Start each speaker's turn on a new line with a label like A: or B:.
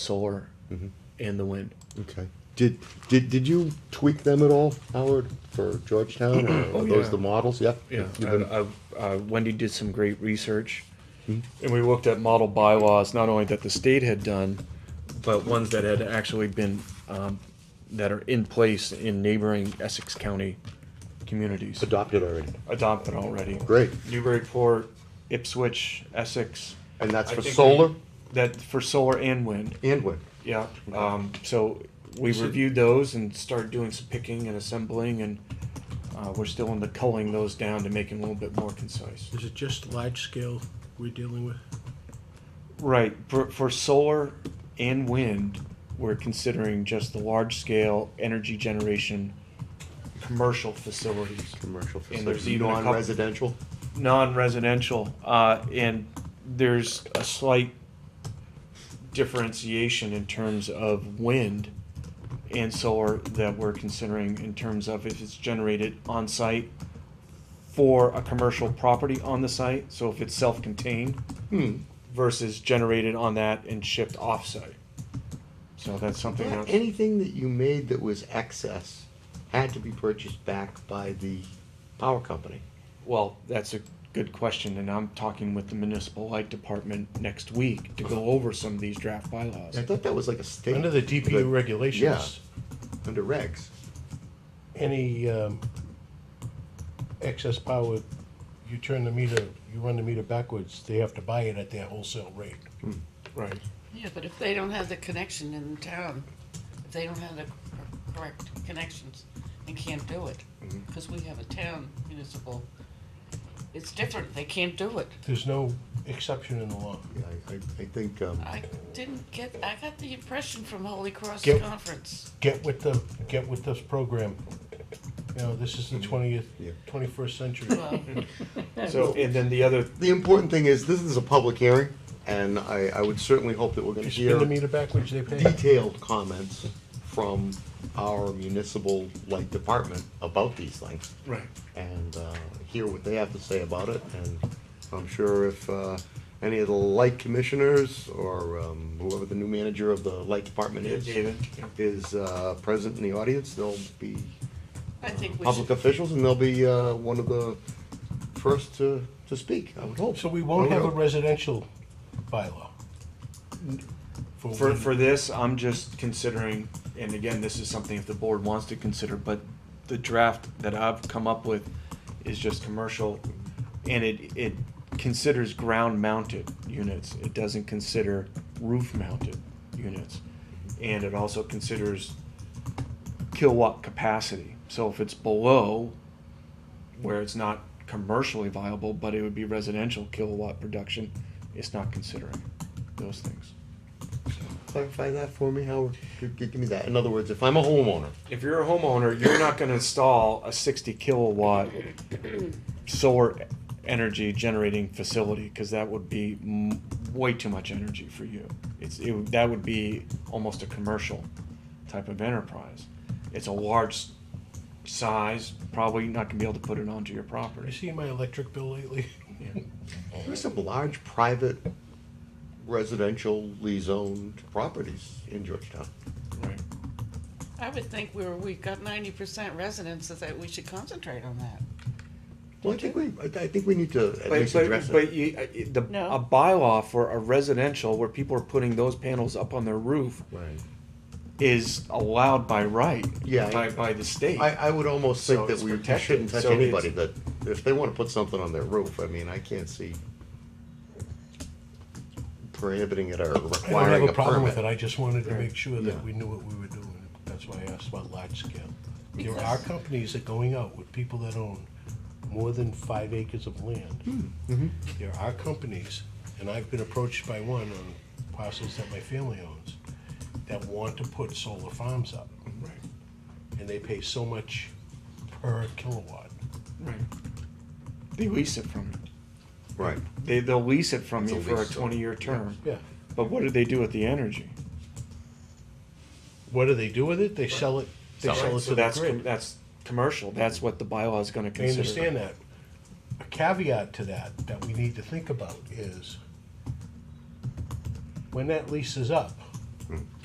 A: solar and the wind.
B: Okay. Did, did, did you tweak them at all, Howard, for Georgetown? Or
A: Oh,
B: Are those
A: yeah.
B: the models? Yeah?
A: Yeah,
B: You've been-
A: I, I, uh, Wendy did some great research, and we looked at model bylaws not only that the state had done, but ones that had actually been um, that are in place in neighboring Essex County communities
B: Adopted already.
A: adopted already.
B: Great.
A: Newburyport, Ipswich, Essex.
B: And that's
A: I
B: for
A: think we-
B: solar
A: That for solar and wind.
B: and wind?
A: Yeah, um, so we reviewed those and started doing some picking and assembling and, uh, we're still into culling those down to make them a little bit more concise.
C: Is it just large scale we're dealing with?
A: Right, for, for solar and wind, we're considering just the large scale energy generation commercial facilities.
B: Commercial
A: And there's even a couple-
B: Non-residential?
A: non-residential, uh, and there's a slight differentiation in terms of wind and solar that we're considering in terms of if it's generated on-site for a commercial property on the site, so if it's self-contained versus generated on that and shipped off-site. So that's something
B: Yeah,
A: else.
B: Anything that you made that was excess had to be purchased back by the power company.
A: Well, that's a good question, and I'm talking with the municipal light department next week to go over some of these draft bylaws.
B: I thought that was like a state.
C: Under the DPU
B: but-
C: regulations,
B: Under regs.
C: any um, excess power, you turn the meter, you run the meter backwards, they have to buy it at their wholesale rate.
A: Right.
D: Yeah, but if they don't have the connection in town, if they don't have the cor- correct connections and can't do it, because we have a town municipal, it's different, they can't do it.
C: There's no exception in the law.
B: Yeah, I, I, I think, um,
D: I didn't get, I got the impression from Holy Cross
C: Get-
D: Conference.
C: Get with the, get with this program. You know, this is the twentieth,
B: Mm-hmm. Yeah.
C: twenty-first century.
D: Well,
A: So, and then the other,
B: the important thing is, this is a public hearing, and I, I would certainly hope that we're gonna
C: You
B: hear
C: spin the meter backwards, they pay.
B: detailed comments from our municipal light department about these things.
A: right,
B: and uh, hear what they have to say about it. And I'm sure if uh, any of the light commissioners or um, whoever the new manager of the light department
A: Yeah,
B: is
A: David, yeah.
B: is uh, present in the audience, they'll be
D: I think we
B: public
D: should,
B: officials and they'll be uh, one of the first to, to speak. I would hope.
C: So we won't
B: I
C: have a
B: would hope.
C: residential bylaw.
A: for,
C: wind.
A: for this, I'm just considering, and again, this is something if the board wants to consider, but the draft that I've come up with is just commercial, and it, it considers ground-mounted units. It doesn't consider roof-mounted units. And it also considers kilowatt capacity. So if it's below where it's not commercially viable, but it would be residential kilowatt production, it's not considering those things.
B: clarify that for me, Howard. Give, give me that. In other words, if I'm a homeowner,
A: If you're a homeowner, you're not gonna install a sixty kilowatt solar energy generating facility, cause that would be m- way too much energy for you. It's, it, would- that would be almost a commercial type of enterprise. It's a large s- size, probably not gonna be able to put it onto your
C: You
A: property.
C: see my electric bill lately?
B: there's some large private residentially zoned properties in Georgetown.
A: Right.
D: I would think we were, we got ninety percent residences, that we should concentrate on that.
B: Well, I think we, I I think we need to at
A: But,
B: least address
A: but, but
B: it.
A: you, uh, it- the,
D: No.
A: a bylaw for a residential where people are putting those panels up on their roof
B: Right.
A: is allowed by right.
B: Yeah.
A: By, by the state.
B: I, I would almost
A: So
B: think that
A: it's
B: we
A: protected.
B: shouldn't touch
A: So it's-
B: anybody, that if they wanna put something on their roof, I mean, I can't see prohibiting it or
C: I don't have
B: requiring
C: a
B: a
C: problem with it,
B: permit.
C: I just wanted to make sure
B: Yeah.
C: that we knew what we were doing, that's why I asked about large scale. There are
D: Because-
C: companies that going out with people that own more than five acres of land.
B: Hmm.
C: There are companies, and I've been approached by one on parcels that my family owns, that want to put solar farms up. And they pay so much per kilowatt.
A: Right. They lease it from you.
B: Right.
A: They, they'll lease it from
B: It's
A: you
B: a
A: for a
B: lease, so-
A: twenty-year term.
C: Yeah,
A: But what do they do with the energy?
C: what do they do with it? They sell it, they
B: Sell it.
C: sell it to
A: So
C: the
A: that's,
C: grid.
A: com- that's commercial. That's what the bylaw is gonna
C: I
A: consider.
C: understand that. A caveat to that, that we need to think about is when that lease is up,